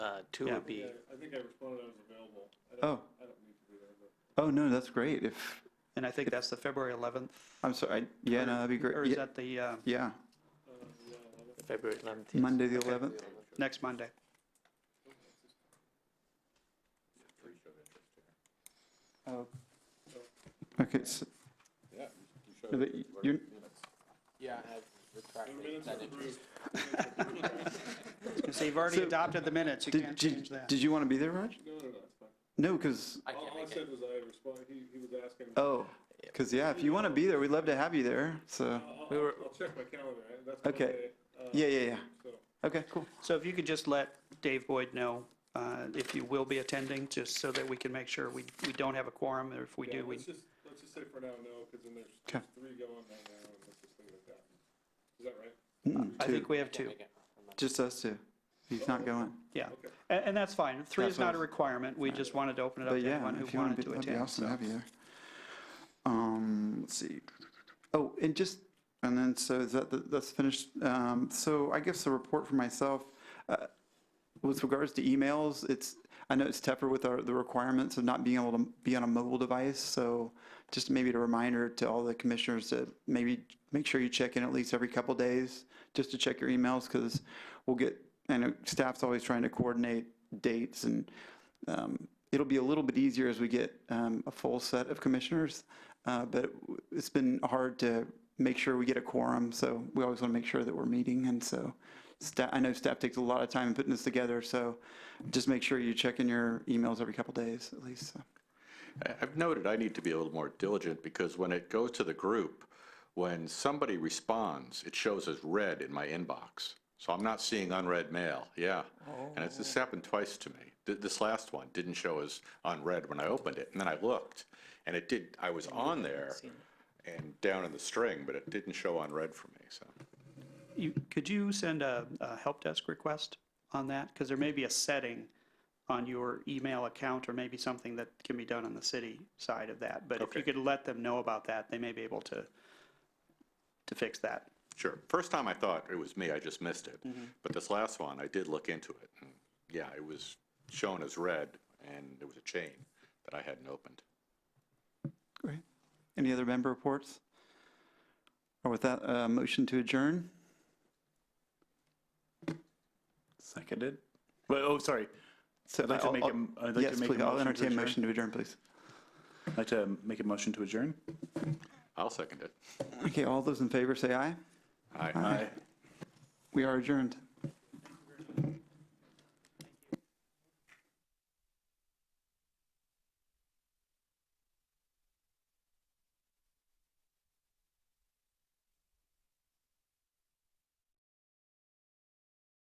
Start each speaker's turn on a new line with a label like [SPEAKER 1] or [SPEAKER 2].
[SPEAKER 1] uh, two
[SPEAKER 2] Yeah.
[SPEAKER 1] would be,
[SPEAKER 3] I think I responded I was available. I don't,
[SPEAKER 2] Oh.
[SPEAKER 3] I don't need to be there, but
[SPEAKER 2] Oh, no, that's great. If,
[SPEAKER 4] And I think that's the February 11th,
[SPEAKER 2] I'm sorry, I- yeah, no, Uh, that'd be
[SPEAKER 4] or
[SPEAKER 2] great.
[SPEAKER 4] is
[SPEAKER 2] Ye-
[SPEAKER 4] that the uh,
[SPEAKER 2] Yeah,
[SPEAKER 1] February 11th. yes.
[SPEAKER 2] Monday, the 11th.
[SPEAKER 4] next Monday?
[SPEAKER 2] Okay, s-
[SPEAKER 5] Yeah, you showed
[SPEAKER 2] no,
[SPEAKER 5] it.
[SPEAKER 2] but y- you're,
[SPEAKER 6] Yeah, I have retracted
[SPEAKER 3] minutes
[SPEAKER 6] that
[SPEAKER 3] are
[SPEAKER 6] interest.
[SPEAKER 3] approved.
[SPEAKER 4] So you've already
[SPEAKER 2] So-
[SPEAKER 4] adopted the minutes, you
[SPEAKER 2] did,
[SPEAKER 4] can't
[SPEAKER 2] did
[SPEAKER 4] change that.
[SPEAKER 2] did you want to be there, Raj?
[SPEAKER 3] No, no, no, it's fine.
[SPEAKER 2] No, because,
[SPEAKER 6] I
[SPEAKER 3] All
[SPEAKER 6] can't
[SPEAKER 3] all I
[SPEAKER 6] make it.
[SPEAKER 3] said was I responded, he, he was asking.
[SPEAKER 2] oh, because, yeah, if you want to be there, we'd love to have you there. So,
[SPEAKER 3] I'll,
[SPEAKER 1] We were-
[SPEAKER 3] I'll- I'll check my calendar, I- that's
[SPEAKER 2] Okay.
[SPEAKER 3] Monday, uh,
[SPEAKER 2] yeah, yeah, yeah.
[SPEAKER 3] So,
[SPEAKER 2] Okay, cool.
[SPEAKER 4] So if you could just let Dave Boyd know uh, if you will be attending, just so that we can make sure we, we don't have a quorum, or if we
[SPEAKER 3] yeah,
[SPEAKER 4] do, we,
[SPEAKER 3] let's just, let's just say for now, no, because then there's
[SPEAKER 2] Okay.
[SPEAKER 3] there's three going right now, and let's just leave it at that. Is that right?
[SPEAKER 2] Mm,
[SPEAKER 4] I
[SPEAKER 2] two.
[SPEAKER 4] think we have
[SPEAKER 6] Can't
[SPEAKER 4] two.
[SPEAKER 6] make it. I'm not-
[SPEAKER 2] Just us two. He's not going.
[SPEAKER 4] Yeah,
[SPEAKER 3] Okay.
[SPEAKER 4] and, and that's fine. Three
[SPEAKER 2] That's
[SPEAKER 4] is
[SPEAKER 2] what I
[SPEAKER 4] not a
[SPEAKER 2] was-
[SPEAKER 4] requirement. We just wanted to open it up
[SPEAKER 2] But
[SPEAKER 4] to
[SPEAKER 2] yeah,
[SPEAKER 4] anyone
[SPEAKER 2] if
[SPEAKER 4] who
[SPEAKER 2] you want
[SPEAKER 4] wanted
[SPEAKER 2] to be,
[SPEAKER 4] to
[SPEAKER 2] that'd be
[SPEAKER 4] attend.
[SPEAKER 2] awesome to
[SPEAKER 4] So
[SPEAKER 2] have you there. Um, let's see. Oh, and just, and then, so is that, the- that's finished. Um, so I guess the report for myself, uh, with regards to emails, it's, I know it's tougher with our, the requirements of not being able to be on a mobile device. So just maybe a reminder to all the commissioners to maybe make sure you check in at least every couple days just to check your emails because we'll get, I know staff's always trying to coordinate dates and um, it'll be a little bit easier as we get um, a full set of commissioners, uh, but it's been hard to make sure we get a quorum, so we always want to make sure that we're meeting, and so staff, I know staff takes a lot of time in putting this together, so just make sure you check in your emails every couple days at least. so.
[SPEAKER 5] I- I've noted I need to be a little more diligent because when it goes to the group, when somebody responds, it shows as read in my inbox. So I'm not seeing unread mail, yeah. And it's, this happened twice to me. Th- This last one didn't show as unread when I opened it. And then I looked and it did, I was on there and down in the string, but it didn't show unread for me, so.
[SPEAKER 4] you, could you send a, a help desk request on that? Because there may be a setting on your email account or maybe something that can be done on the city side of that. But if you could let them know about that, they may be able to, to fix that.
[SPEAKER 5] Sure. First time I thought it was me, I just missed it. But this last one, I did look into it. and Yeah, it was shown as red and there was a chain that I hadn't opened.
[SPEAKER 2] Great. Any other member reports? Or with that, uh, motion to adjourn?
[SPEAKER 7] Seconded. Well, oh, sorry.
[SPEAKER 2] So
[SPEAKER 7] I'd like to
[SPEAKER 2] I'll-
[SPEAKER 7] make a
[SPEAKER 2] I'll-
[SPEAKER 7] m- I'd like to
[SPEAKER 2] Yes,
[SPEAKER 7] make a
[SPEAKER 2] please, I'll
[SPEAKER 7] motion to
[SPEAKER 2] entertain a
[SPEAKER 7] adjourn.
[SPEAKER 2] motion to adjourn, please.
[SPEAKER 7] I'd like to make a motion to adjourn.
[SPEAKER 5] I'll second it.
[SPEAKER 2] Okay, all those in favor, say aye.
[SPEAKER 5] Aye.
[SPEAKER 2] We are adjourned.